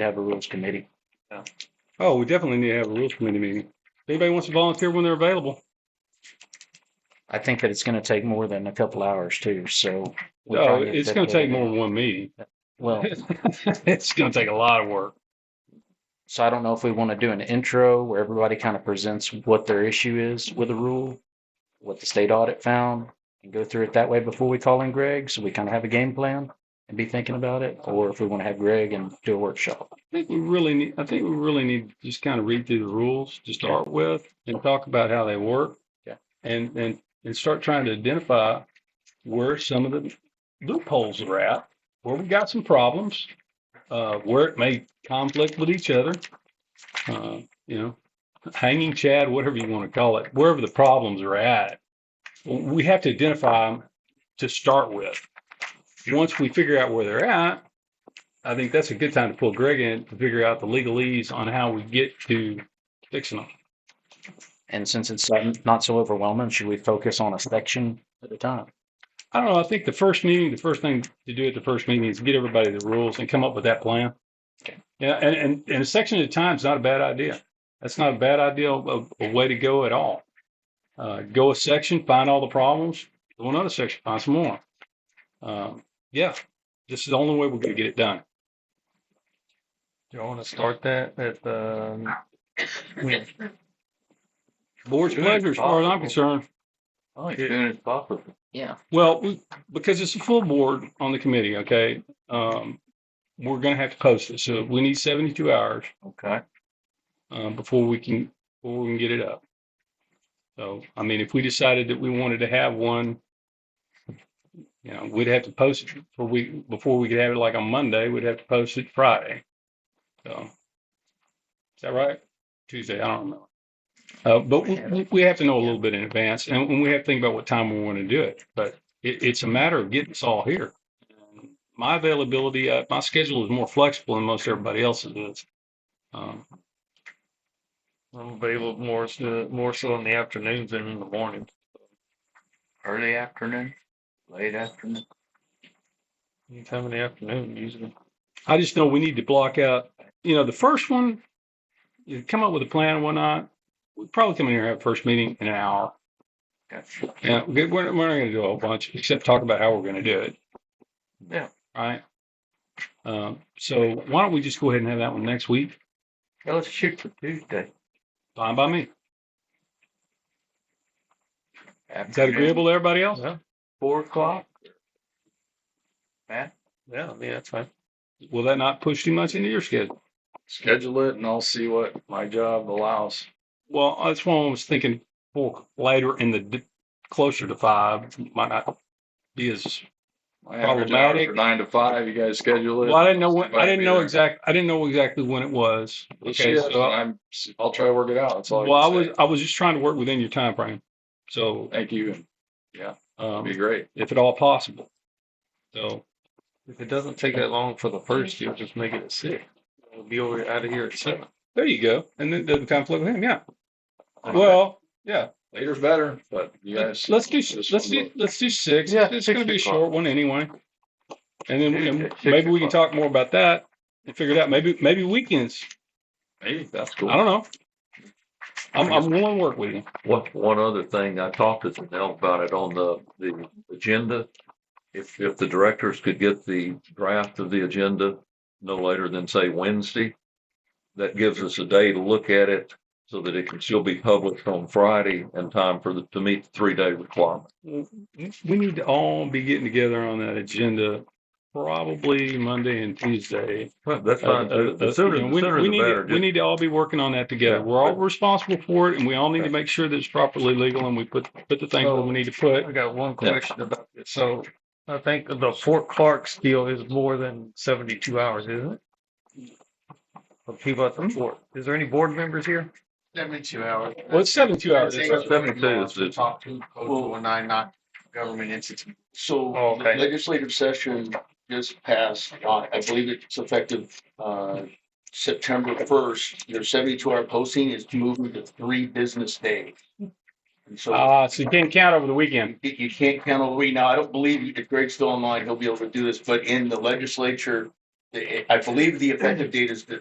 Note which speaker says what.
Speaker 1: to have a rules committee.
Speaker 2: Oh, we definitely need to have a rules committee meeting. If Anybody wants to volunteer when they're available?
Speaker 1: I think that it's going to take more than a couple hours too, so. we'll try
Speaker 2: Oh,
Speaker 1: to get
Speaker 2: it's
Speaker 1: that
Speaker 2: gonna take
Speaker 1: together.
Speaker 2: more than one meeting.
Speaker 1: Well,
Speaker 2: It's gonna take a lot of work.
Speaker 1: so I don't know if we want to do an intro where everybody kind of presents what their issue is with the rule, what the state audit found, and go through it that way before we call in Greg, so we kind of have a game plan and be thinking about it, or if we want to have Greg and do a workshop.
Speaker 2: I think we really need, I think we really need to just kind of read through the rules to start with and talk about how they work.
Speaker 1: Yeah.
Speaker 2: And, and, and start trying to identify where some of the loopholes are at, where we got some problems, uh, where it may conflict with each other. Uh, you know, hanging chad, whatever you want to call it, wherever the problems are at. We have to identify them to start with. Once we figure out where they're at, I think that's a good time to pull Greg in to figure out the legalese on how we get to fixing them.
Speaker 1: And since it's not so overwhelming, should we focus on a section at a time?
Speaker 2: I don't know. I think the first meeting, the first thing to do at the first meeting is get everybody the rules and come up with that plan.
Speaker 1: Okay.
Speaker 2: Yeah, and, and, and a section at a time is not a bad idea. That's not a bad idea of a way to go at all. Uh, go a section, find all the problems, go another section, find some more. Um, yeah, this is the only way we're gonna get it done.
Speaker 3: Do you want to start that at the?
Speaker 2: Board's
Speaker 3: Good.
Speaker 2: pleasure, as far as I'm concerned.
Speaker 3: As soon as possible.
Speaker 1: Yeah.
Speaker 2: Well, we- because it's a full board on the committee, okay, um, we're gonna have to post it, so we need seventy-two hours,
Speaker 3: Okay.
Speaker 2: um, before we can, before we can get it up. So, I mean, if we decided that we wanted to have one, you know, we'd have to post it for week, before we could have it like on Monday, we'd have to post it Friday. So, is that right? Tuesday, I don't remember. Uh, but we- we, we have to know a little bit in advance and and we have to think about what time we want to do it, but it, it's a matter of getting us all here. My availability, uh, my schedule is more flexible than most everybody else's is. Um,
Speaker 3: I'm available more so, more so in the afternoons than in the mornings.
Speaker 4: Early afternoon, late afternoon.
Speaker 3: Anytime in the afternoon usually.
Speaker 2: I just know we need to block out, you know, the first one, you come up with a plan and whatnot. We probably come in here and have a first meeting in an hour.
Speaker 4: Gotcha.
Speaker 2: Yeah, we- we're, we're not going to do a whole bunch except talk about how we're going to do it.
Speaker 3: Yeah.
Speaker 2: Right. Um, so why don't we just go ahead and have that one next week?
Speaker 4: Yeah, let's shoot for Tuesday.
Speaker 2: Fine by me. Is that
Speaker 4: Afternoon,
Speaker 2: agreeable to everybody else?
Speaker 4: Four o'clock.
Speaker 3: Yeah, yeah, that's fine.
Speaker 2: Will that not push too much into your schedule?
Speaker 4: Schedule it and I'll see what my job allows.
Speaker 2: Well, that's why I was thinking for later in the d- closer to five might not be as
Speaker 4: My average hours
Speaker 2: Problematic.
Speaker 4: are Nine to five, you guys schedule
Speaker 2: Well,
Speaker 4: it.
Speaker 2: I didn't know when, I
Speaker 4: Might
Speaker 2: didn't
Speaker 4: be
Speaker 2: know
Speaker 4: there.
Speaker 2: exact, I didn't know exactly when it was.
Speaker 4: Let's
Speaker 2: Okay,
Speaker 4: see it,
Speaker 2: so, I-
Speaker 4: I'm, I'll try to work it out. That's all.
Speaker 2: well, I
Speaker 4: can
Speaker 2: was,
Speaker 4: say.
Speaker 2: I was just trying to work within your time frame. So,
Speaker 4: Thank you. and
Speaker 2: um,
Speaker 4: It'd be great.
Speaker 2: if at all possible. So,
Speaker 3: If it doesn't take that long for the first, you'll just make it at six. We'll be over out of here at seven.
Speaker 2: there you go. And then it doesn't conflict with him, yeah. Well, yeah,
Speaker 4: Later's better, but you guys.
Speaker 2: let's do,
Speaker 4: this
Speaker 2: let's
Speaker 4: one
Speaker 2: do,
Speaker 4: look-
Speaker 2: let's do six.
Speaker 3: Yeah,
Speaker 2: It's gonna be a
Speaker 3: six o'clock.
Speaker 2: short one anyway. And then
Speaker 4: Six-
Speaker 2: and
Speaker 4: six
Speaker 2: maybe we can
Speaker 4: o'clock.
Speaker 2: talk more about that and figure it out. Maybe, maybe weekends.
Speaker 4: Hey, that's
Speaker 2: I
Speaker 4: cool.
Speaker 2: don't know. I'm, I'm willing to work with you.
Speaker 5: One, one other thing, I talked to Danell about it on the, the agenda. If, if the directors could get the draft of the agenda no later than say Wednesday, that gives us a day to look at it so that it can still be published on Friday in time for the, to meet the three-day requirement.
Speaker 2: we need to all be getting together on that agenda probably Monday and Tuesday.
Speaker 5: That's fine.
Speaker 2: Uh, uh,
Speaker 5: The sooner,
Speaker 2: you know,
Speaker 5: the
Speaker 2: we-
Speaker 5: sooner
Speaker 2: we
Speaker 5: the
Speaker 2: need to-
Speaker 5: better.
Speaker 2: We need to all be working on that together.
Speaker 5: Yeah.
Speaker 2: We're all responsible for it and we all need to make sure that it's properly legal and we put, put the things where we need to put.
Speaker 3: I got one question about this. So I think the Fort Clark deal is more than seventy-two hours, isn't it? For people at the fort. Is there any board members here?
Speaker 6: Seventy-two hours.
Speaker 2: Well, it's seventy-two hours.
Speaker 6: Take
Speaker 5: it's
Speaker 6: us
Speaker 5: 72
Speaker 6: right now
Speaker 5: is
Speaker 6: to
Speaker 5: the-
Speaker 6: Talk to code one nine nine government entity.
Speaker 7: So
Speaker 3: Oh,
Speaker 7: the
Speaker 3: okay.
Speaker 7: legislative session just passed, uh, I believe it's effective uh, September first. Your seventy-two hour posting is moving to three business days. And so
Speaker 2: Uh, so you can't count over the weekend.
Speaker 7: you- you can't count a week. Now, I don't believe if Greg's still online, he'll be able to do this, but in the legislature,
Speaker 1: the- I believe the effective date is the